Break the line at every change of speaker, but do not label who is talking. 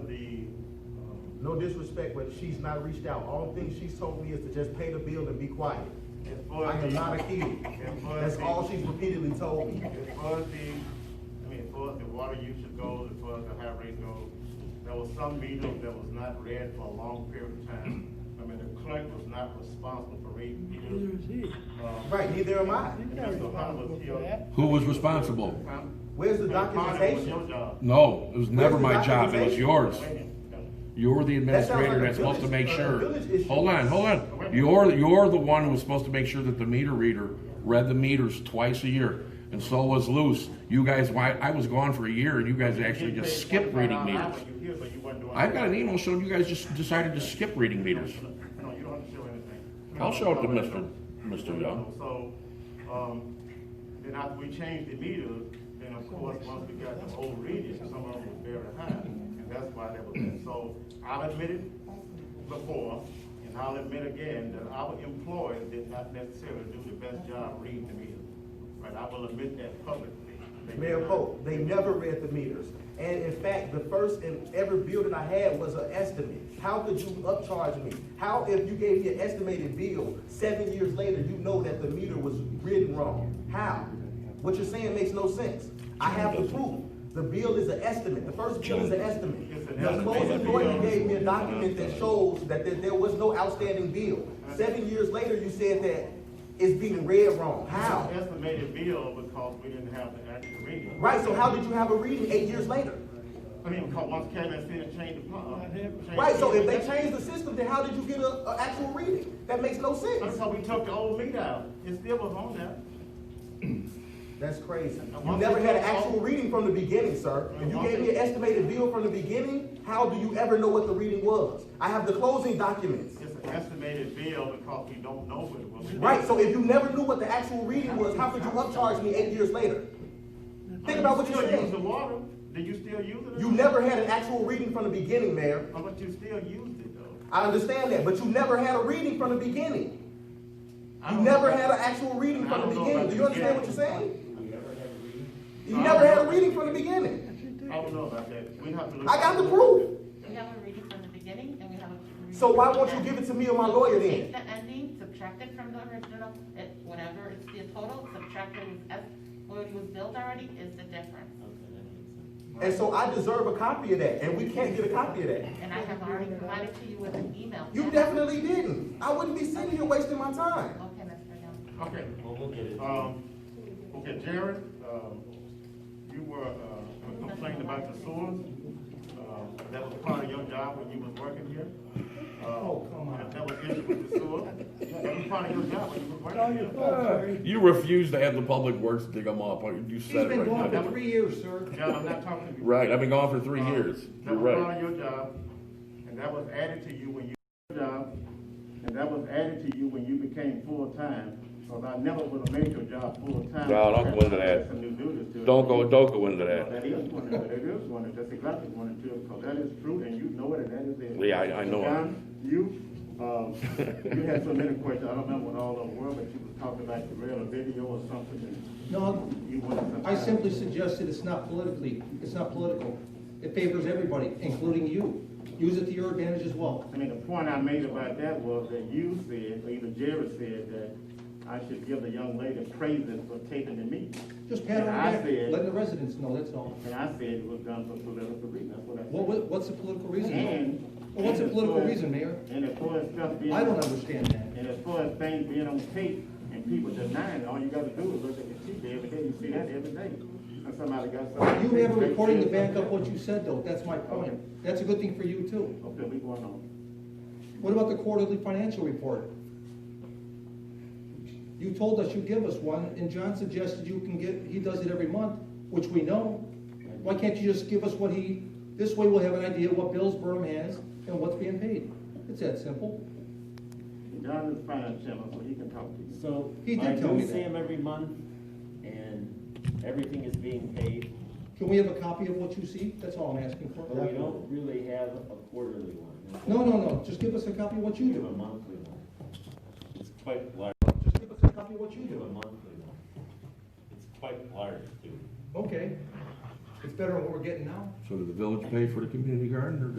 um,
no disrespect, but she's not reached out. All thing she's told me is to just pay the bill and be quiet.
As far
I
as
am
the,
not a kid. That's all she's repeatedly told me.
as far as the, I mean, as far as the water usage goes, as far as the high rate goes, there was some meter that was not read for a long period of time. I mean, the clerk was not responsible for reading meters. Um,
Right, neither am I.
and Mr. Hunter was here.
Who was responsible?
Huh?
Where's the
Mr. Hunter, it was your
documentation?
job.
No, it was never
Where's
my
the
job, it was yours.
documentation?
Wait a minute.
You're the
That sounds like
administrator
a
that's supposed to
village-
make
uh, village
sure.
issue.
Hold on, hold on. You're, you're the one who was supposed to make sure that the meter reader read the meters twice a year. And so was Luce. You guys, why, I was gone for a year and you guys actually
You
just
paid
skipped reading
$25 an hour
meters.
when you here, but you wasn't doing
I've got an
it.
email showing you guys just decided to skip reading meters.
No, you don't have to show anything.
I'll show it to
No, no,
Mr.
no.
Mr. Young.
So, um, then after we changed the meter, then of course, once we got the old readings, some of them were very high, and that's why that was, there. so I'll admit it before, and I'll admit again, that our employees did not necessarily do the best job reading the meter. Right, I will admit that publicly. They did
Mayor
not.
Pope, they never read the meters. And in fact, the first and every bill that I had was an estimate. How could you upcharge me? How if you gave me an estimated bill, seven years later, you know that the meter was written wrong? How? What you're saying makes no sense. I have the proof. The bill is an estimate. The first bill is an estimate.
It's an
The
estimate.
Moses Norton gave me a document that shows that there, there was no outstanding bill. Seven years later, you said that it's being read wrong. How?
Estimated bill because we didn't have the actual reading.
Right, so how did you have a reading eight years later?
I mean, because once Kevin said change the plan. change
Right, so
the-
if they changed the system, then how did you get a, a actual reading? That makes no
That's
sense.
how we took the old meat out. It still was on there.
That's crazy. You
once
never
they
had an
took all-
actual reading from the beginning, sir.
And
If you
once
gave
they-
me an estimated bill from the beginning, how do you ever know what the reading was? I have the closing documents.
It's an estimated bill because we don't know what it was.
Right, so if you never knew what the actual reading was, how could you upcharge me eight years later? Think about what you're
Still use the
saying.
water. Did you still use it? or
You
not?
never had an actual reading from the beginning, Mayor.
Oh, But you still used it though.
I understand that, but you never had a reading from the beginning.
I
You
don't
never
know.
had an actual reading
I
from the
don't know
beginning.
about
Do you
the
understand what you're
beginning.
saying? You
I
never
don't
had a
know.
reading from the beginning.
I don't know about that. We have to look.
I got the proof.
We have a reading from the beginning and we have a. reading
So why
from the
won't you
end.
give it to me or my lawyer
Take
then?
the ending, subtract it from the original, it, whatever, it's the total, subtract what was, es- what was billed already is the difference.
And so I deserve a copy of that, and we can't get a copy of that.
And I have already provided to you with an email.
You definitely didn't. I wouldn't be sitting here wasting my time.
Okay, Mr. Young.
Okay. Well, we'll get it. Um, okay, Jared, um, you were, uh, complaining about the sewers. Um, that was part of your job when you was working here. Oh, come on. That was issue with the sewer. That was part of your job when you was working here.
You refuse to have the public works dig them up. You
He's
said it
been
right
gone for
now.
three years, sir.
John, I'm not talking to you. Um,
Right, I've been gone for
Oh.
three years. You're
That was part
right.
of your job, and that was added to you when you, your job, and that was added to you when you became full-time. Because I never would have made your job full-time.
No, don't go into that.
Some new duties to it.
Don't go, don't go into
No,
that.
That is one of it, that is one of it, that's exactly one of it, because that is true, and you know it, and that is it.
Yeah, I- I know it.
John, You, um, you had so many questions, I don't remember what all of them were, but you was talking about the rail or video or something, and
No,
you wanted something.
I simply suggested it's not politically, it's not political. It favors everybody, including you. Use it to your advantage as well.
I mean, the point I made about that was that you said, or either Jerry said, that I should give the young lady praises for taking the meeting.
Just pat her on
I
the back,
said-
letting the residents know, that's all.
And I said it was done for political reasons, that's what I said.
What, what- what's the political reason?
And.
Well, what's the
and as
political
far as-
reason, Mayor?
And as far as stuff being.
I don't understand that.
And as far as things being on tape and people denying, it, all you gotta do is look at the TV every day, you see that every day. And somebody got something.
You have a recording to back up what you said, though, that's my point. That's a good thing for you, too.
Okay, we going on.
What about the quarterly financial report? You told us you give us one, and John suggested you can get, he does it every month, which we know. Why can't you just give us what he, this way we'll have an idea what bills Burnham has and what's being paid? It's that simple.
John is finance chairman, so he can talk to you.
So,
He did
I
tell me
do see
that.
him every month, and everything is being paid,
Can we have a copy of what you see? That's all I'm asking for.
but we Oh, don't really have a quarterly one.
No, no, no, just give us a copy of what
We
you
have a
do.
monthly one. It's quite large,
Just give us a copy of what you
we have a
do.
monthly one. It's quite large, too.
Okay. It's better than what we're getting now.
So did the village pay for the community garden or did